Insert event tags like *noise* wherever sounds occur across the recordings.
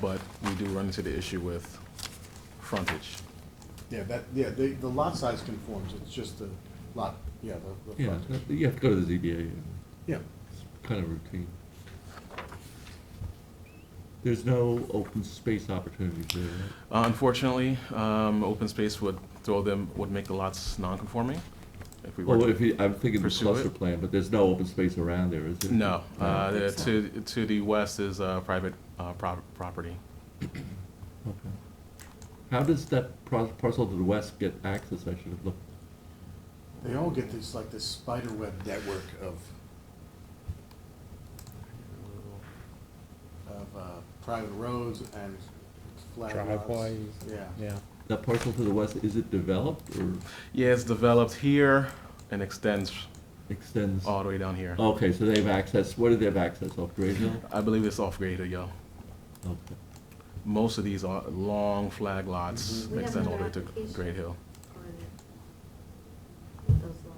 but we do run into the issue with frontage. Yeah, that, yeah, the, the lot size conforms, it's just the lot, yeah, the, the Yeah, frontage. that- you have to go to the ZBA, Yeah, it's kind of routine. There's no open space opportunities there, right? Uh, Unfortunately, um, open space would throw them, would make the lots non-conforming if we were Well, to if you, I'm thinking the pursue cluster it? plan, but there's no open space around there, is there? No, uh, I don't think to, to the west is, uh, private, uh, prop- property. Okay. How does that par- parcel to the west get access, I should have looked? they all get this, like this spider web network of, of, uh, private roads and flat lots. Driveways. Yeah. Yeah, That parcel to the west, is it developed or Yeah, it's developed here and extends extends? all the way down here. Okay, so they have access, where do they have access, off Grade Hill? I believe it's off Grade Hill. Okay. Most of these are long flag lots, Mhm. Mm-hmm. We have extend all the way another to application. Grade Hill. on it. With those uh,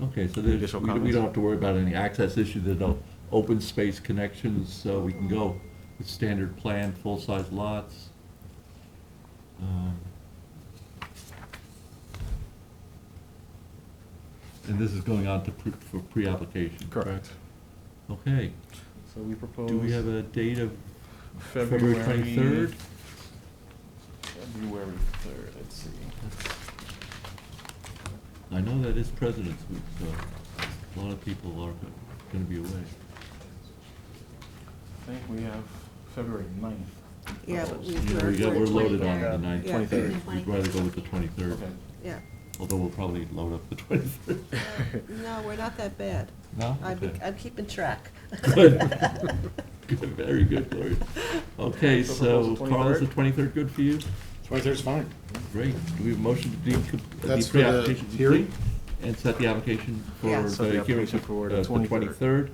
lots. Okay, so there's, Additional we don't- we comments? don't have to worry about any access issue, there's no open space connections, so we can go with standard plan, full-size lots. Um, And this is going on to pre, for pre-application, correct? Okay, So we propose. do we have a date of February February twenty-third? February third, let's see. I know that is President's Week, so a lot of people are gonna be away. I think we have February ninth. Yeah, but we- You know, we got, We're we're loaded on the 23rd. ninth, Yeah. twenty-third, Yeah. we'd rather go with the twenty-third. Okay. *laughs* Yeah, Although we'll probably load up the *laughs* 23rd. no, we're not that bad. No? I'm, Okay. I'm keeping track. *laughs* Good. Good, Very good, Gloria. Okay, So so proposal Carl, is the 23rd? 23rd good for you? Twenty-third's fine. Great. Do we have a motion to deem co- uh, the That's for the pre-application hearing? complete? And set the application for Yeah. the Set the hearing application for for uh, the the 23rd. 23rd? Do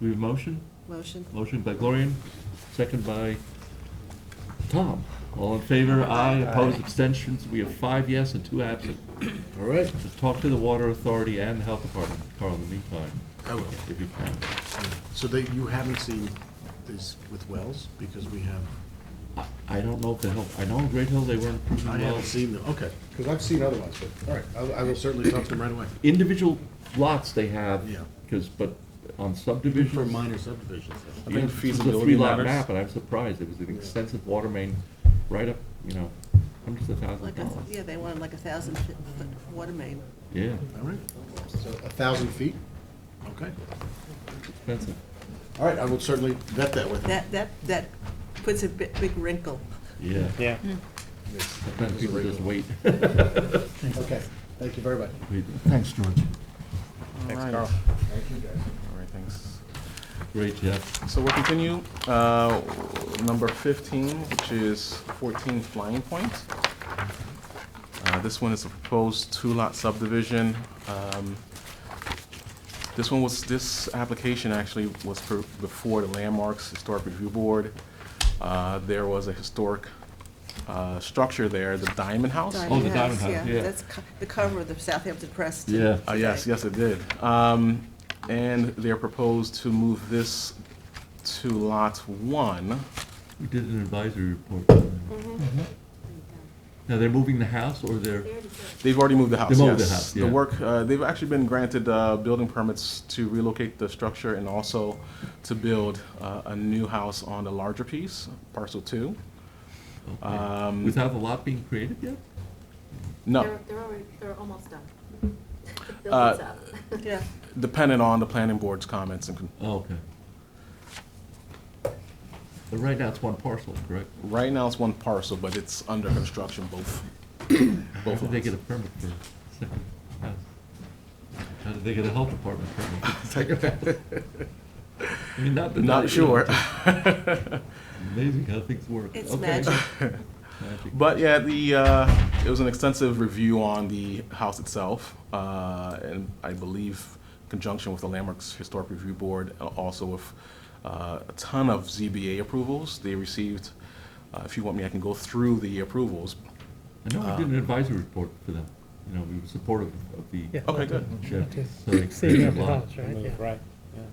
we have a motion? Motion. Motion by Gloria, second by Tom. All in favor? Aye. Opposed? Abstentions? We have five yes and two absent. All right. Just talk to the Water Authority and the Health Department, Carl, in the meantime, I will. if you can. Oh, So that you haven't seen this with wells, because we have, I- I don't know if the Hill, I know in Great Hill they weren't I approving haven't wells. seen them, okay. Because I've seen other ones, but, all right, I, I will certainly talk to them right away. Individual lots they have, Yeah. because, but on subdivisions. For minor subdivisions. I think It's just a feasibility three-lot matters. map, and I'm surprised, it was an Yeah. extensive water main right up, you know, hundreds of thousands of Like a, dollars. yeah, they wanted like a thousand foot foot water main. Yeah, All right, so a thousand feet, okay. expensive. All right, I will certainly vet that with them. That, that, that puts a bi- big wrinkle. Yeah, yeah. sometimes people just wait. *laughs* Okay, thank you very much. Wait. Thanks, George. Thanks, Alright. Carl. Thank you, guys. All right, thanks. Great, Jeff. So we'll continue, uh, number fifteen, which is fourteen Flying Point. Uh, this one is a proposed two-lot subdivision. Um, This one was, this application actually was for, before the Landmarks Historic Review Board. Uh, there was a historic, uh, structure there, the Diamond House. Oh, the Diamond House, yeah. That's co- the cover of the Southampton Press. Yeah. Uh, yes, yes, it did. Um, and they're proposed to move this to lot one. We did an advisory report. Mm-hmm. Mm-hmm. Now, they're moving the house, or they're? There it is. They've already moved the house, yes. They moved the house, yeah. work, uh, they've actually been granted, uh, building permits to relocate the structure and also to build, uh, a new house on the larger piece, parcel two. okay. Um, Without the lot being created yet? No, They're, they're already, they're almost done. *laughs* The Uh, building's up. *laughs* Yeah, dependent on the planning board's comments and, con- Oh, okay. But right now, it's one parcel, correct? right now it's one parcel, but it's under construction, both. How Both did they lots. get a permit for a second house? How did they get a health department *laughs* permit? *laughs* for a second house? I mean, not that. Not you know, sure. *laughs* *laughs* it's Amazing how things work. It's Okay. magic. Magic. But yeah, the uh, it was an extensive review on the house itself, uh, and I believe in conjunction with the Landmarks Historic Review Board, uh, also with uh, a ton of ZBA approvals they received. Uh, if you want me, I can go through the approvals. I know we did an advisory report for them, you know, we were supportive of the. Yeah. Okay, good. Yeah, Just so they Saving created up a the lot. house, right? Yeah. Right.